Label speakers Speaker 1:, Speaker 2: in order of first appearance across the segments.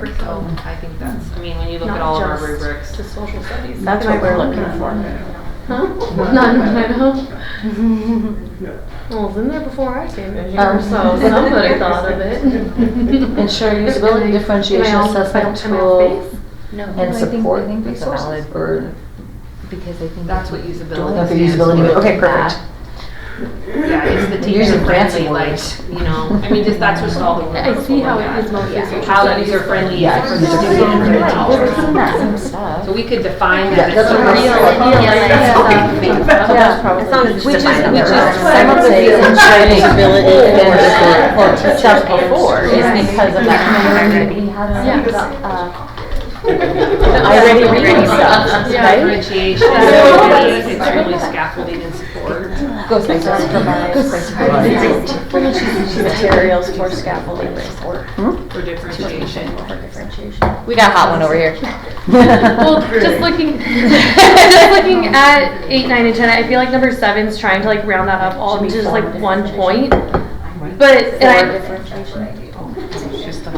Speaker 1: So Oh, I think that's, I mean, when you look
Speaker 2: Not
Speaker 1: at all of our
Speaker 2: just
Speaker 1: rubrics.
Speaker 2: To social studies.
Speaker 3: That's
Speaker 2: Am I
Speaker 3: what we're
Speaker 2: wrong?
Speaker 3: looking for.
Speaker 2: Huh? None, I know. Well, it was in there before I came in here,
Speaker 3: Um.
Speaker 2: so somebody thought of it.
Speaker 3: Ensure usability, differentiation,
Speaker 2: Am I on-
Speaker 3: assessment
Speaker 2: am I on
Speaker 3: tool,
Speaker 2: face?
Speaker 4: No, no,
Speaker 3: and
Speaker 4: I think,
Speaker 3: support
Speaker 4: I think
Speaker 3: is a
Speaker 4: resources,
Speaker 3: valid word.
Speaker 4: because I think.
Speaker 1: That's what usability
Speaker 3: Okay,
Speaker 1: stands
Speaker 3: usability,
Speaker 1: for.
Speaker 3: okay, perfect.
Speaker 1: Yeah, it's the
Speaker 3: Using
Speaker 1: teacher friendly,
Speaker 3: fancy
Speaker 1: like,
Speaker 3: words.
Speaker 1: you know, I mean, just that's just all the
Speaker 2: I
Speaker 1: rubrics
Speaker 2: see
Speaker 1: will
Speaker 2: how
Speaker 1: look
Speaker 2: it is
Speaker 1: at.
Speaker 2: mostly
Speaker 4: Yeah.
Speaker 2: social
Speaker 1: How
Speaker 2: studies.
Speaker 1: user friendly.
Speaker 3: Yeah,
Speaker 1: for
Speaker 3: it's
Speaker 1: the
Speaker 3: just-
Speaker 4: Right,
Speaker 1: student.
Speaker 4: right, We've seen that same
Speaker 1: So
Speaker 4: stuff.
Speaker 1: we could define
Speaker 3: Yeah,
Speaker 1: that as
Speaker 3: that's what
Speaker 1: a
Speaker 3: we're
Speaker 1: real.
Speaker 3: saying.
Speaker 2: Yeah.
Speaker 3: probably.
Speaker 4: not just
Speaker 3: Which is,
Speaker 4: defining
Speaker 3: which
Speaker 4: the
Speaker 3: is,
Speaker 4: word.
Speaker 3: I would say ensuring usability and support for teachers before is
Speaker 2: Yes.
Speaker 3: because of that community.
Speaker 4: We had a-
Speaker 2: Yeah.
Speaker 4: uh,
Speaker 3: I already read
Speaker 1: Differentiation,
Speaker 3: stuff, right?
Speaker 1: it's extremely scaffolding and support.
Speaker 5: uh,
Speaker 3: Go places.
Speaker 4: Provides.
Speaker 3: Materials for scaffolding and support.
Speaker 1: For differentiation.
Speaker 3: We got a hot one over here.
Speaker 2: Well, just looking, just looking at eight, nine, and ten, I feel like number seven's trying to like round that up all into just like one point. But, and I,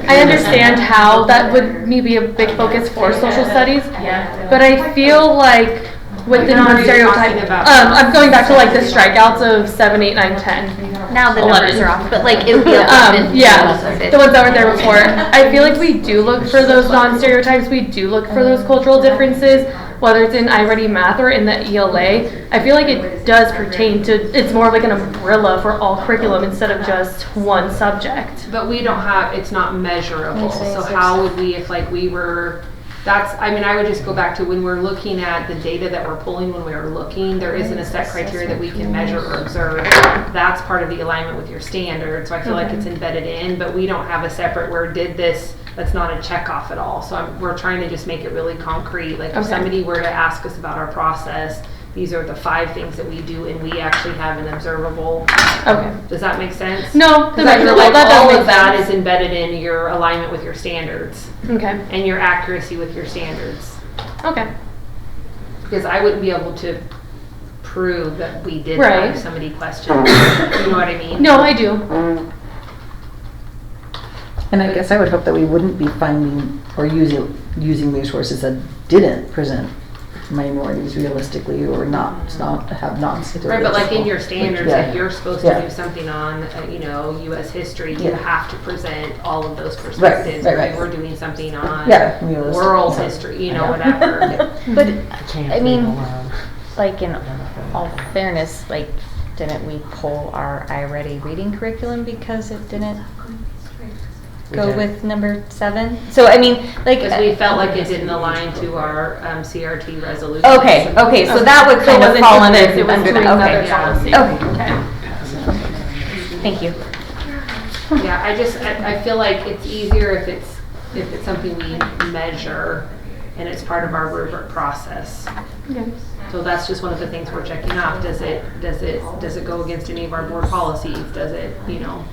Speaker 2: I understand how that would maybe a big focus for social studies,
Speaker 1: Yeah.
Speaker 2: but I feel like with the
Speaker 1: Like, what are you
Speaker 2: non-stereotype,
Speaker 1: talking
Speaker 2: um,
Speaker 1: about?
Speaker 2: I'm going back to like the strikeouts of seven, eight, nine, ten.
Speaker 4: Now the numbers are off, but like it would be eleven.
Speaker 2: Um, yeah,
Speaker 4: Eleven.
Speaker 2: the ones that were there before. I feel like we do look for those non-stereotypes, we do look for those cultural differences, whether it's in iReady Math or in the ELA. I feel like it does pertain to, it's more of like an umbrella for all curriculum instead of just one subject.
Speaker 1: But we don't have, it's not measurable,
Speaker 4: Makes
Speaker 1: so
Speaker 4: sense.
Speaker 1: how would we, if like we were, that's, I mean, I would just go back to when we're looking at the data that we're pulling, when we are looking, there isn't a set criteria that we can measure or observe. That's part of the alignment with your standard, so I feel like it's embedded in, but we don't have a separate, where did this, that's not a check off at all. So I'm, we're trying to just make it really concrete, like if
Speaker 2: Okay.
Speaker 1: somebody were to ask us about our process, these are the five things that we do and we actually have an observable,
Speaker 2: Okay.
Speaker 1: does that make sense?
Speaker 2: No, the
Speaker 1: Because I feel
Speaker 2: measurable,
Speaker 1: like
Speaker 2: that
Speaker 1: all of
Speaker 2: does
Speaker 1: that is
Speaker 2: make sense.
Speaker 1: embedded in your alignment with your standards
Speaker 2: Okay,
Speaker 1: and your accuracy with your standards.
Speaker 2: okay,
Speaker 1: Because I wouldn't be able to prove that we did that
Speaker 2: Right.
Speaker 1: if somebody questioned. You know what I mean?
Speaker 2: no, I do.
Speaker 5: And I guess I would hope that we wouldn't be finding or using, using resources that didn't present minorities realistically or not, not, have not.
Speaker 1: Right, but like in your standards, if
Speaker 5: Yeah.
Speaker 1: you're supposed
Speaker 5: Yeah.
Speaker 1: to do something on, uh, you know, US history, you
Speaker 5: Yeah.
Speaker 1: have to present all of those perspectives.
Speaker 5: right,
Speaker 1: If
Speaker 5: right.
Speaker 1: you We're doing something on
Speaker 5: Yeah, realistic,
Speaker 1: world
Speaker 5: yeah.
Speaker 1: history, you know, whatever.
Speaker 4: But I mean, like in all fairness, like didn't we pull our iReady reading curriculum because it didn't go with number seven? So I mean, like.
Speaker 1: Because we felt like it didn't align to our um, CRT resolution.
Speaker 4: Okay, okay, so that would
Speaker 2: So it
Speaker 4: kind of
Speaker 2: wasn't
Speaker 4: fall
Speaker 2: just
Speaker 4: under,
Speaker 2: this, it was
Speaker 4: under
Speaker 2: doing
Speaker 4: that,
Speaker 2: another
Speaker 4: okay.
Speaker 2: policy. Okay.
Speaker 4: Okay. Thank you.
Speaker 1: Yeah, I just, I, I feel like it's easier if it's, if it's something we measure and it's part of our rubric process.
Speaker 2: Okay.
Speaker 1: So that's just one of the things we're checking off. Does it, does it, does it go against any of our board policies? Does it, you know?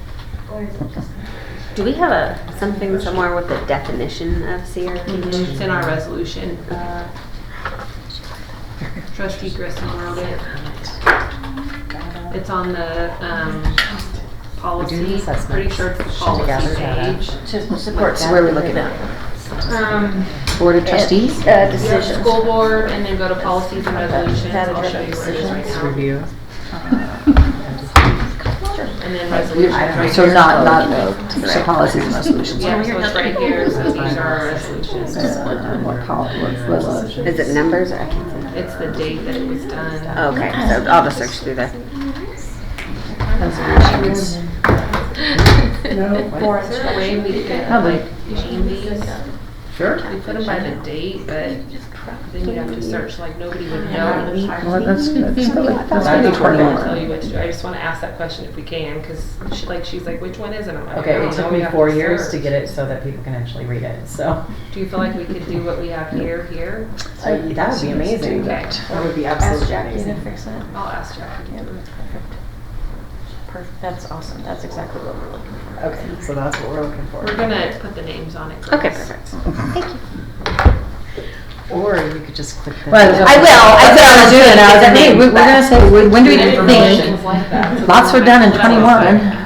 Speaker 6: Do we have a, something somewhere with a definition of CRT?
Speaker 1: Mm-hmm. It's in our resolution.
Speaker 6: Uh,
Speaker 1: Trustee Grissom wrote it. It's on the, um, policy, pretty sure it's the policy page.
Speaker 5: Supports where we're looking at.
Speaker 1: Um,
Speaker 5: Board of trustees?
Speaker 3: Uh,
Speaker 1: You have school board and then go to policies and resolutions. I'll show you where it is right now. And then resolutions right
Speaker 5: So
Speaker 1: here.
Speaker 5: not, not, so policies and resolutions.
Speaker 1: Yeah, so it's right here, so these are our resolutions.
Speaker 5: Uh, What pol, what resolution?
Speaker 6: Is it numbers? I can't see.
Speaker 1: It's the date that it was done.
Speaker 6: Okay, so I'll just search through there.
Speaker 1: Or is there a way we could
Speaker 5: Probably.
Speaker 1: like name these?
Speaker 5: Sure.
Speaker 1: We put them by the date, but then you'd have to search, like nobody would know.
Speaker 5: Well, that's, that's really, that's
Speaker 1: I don't know what
Speaker 5: really
Speaker 1: to tell
Speaker 5: important.
Speaker 1: you what to do. I just wanna ask that question if we can, cause she, like, she's like, which one is it? I'm like, I
Speaker 7: Okay,
Speaker 1: don't
Speaker 7: it
Speaker 1: know,
Speaker 7: took
Speaker 1: we
Speaker 7: me
Speaker 1: have
Speaker 7: four years to
Speaker 1: search.
Speaker 7: get it so that people can actually read it, so.
Speaker 1: Do you feel like we could do what we have here, here?
Speaker 7: That would be amazing.
Speaker 1: Okay,
Speaker 7: That would be absolutely amazing.
Speaker 1: I'll ask Jackie.
Speaker 4: Perfect. That's awesome. That's exactly what we're looking for.
Speaker 7: Okay, so that's what we're looking
Speaker 1: We're
Speaker 7: for.
Speaker 1: gonna put the names on it.
Speaker 4: Okay,
Speaker 1: girls.
Speaker 4: perfect.
Speaker 7: Or you could just click the.
Speaker 5: Well,
Speaker 4: I will. I said I was doing it. I was like,
Speaker 5: Hey,
Speaker 4: hey,
Speaker 5: we- we're gonna say, when do we
Speaker 1: Information
Speaker 5: think?
Speaker 1: is like that.
Speaker 5: Lots were done in
Speaker 1: That's what I was like,
Speaker 5: twenty-one.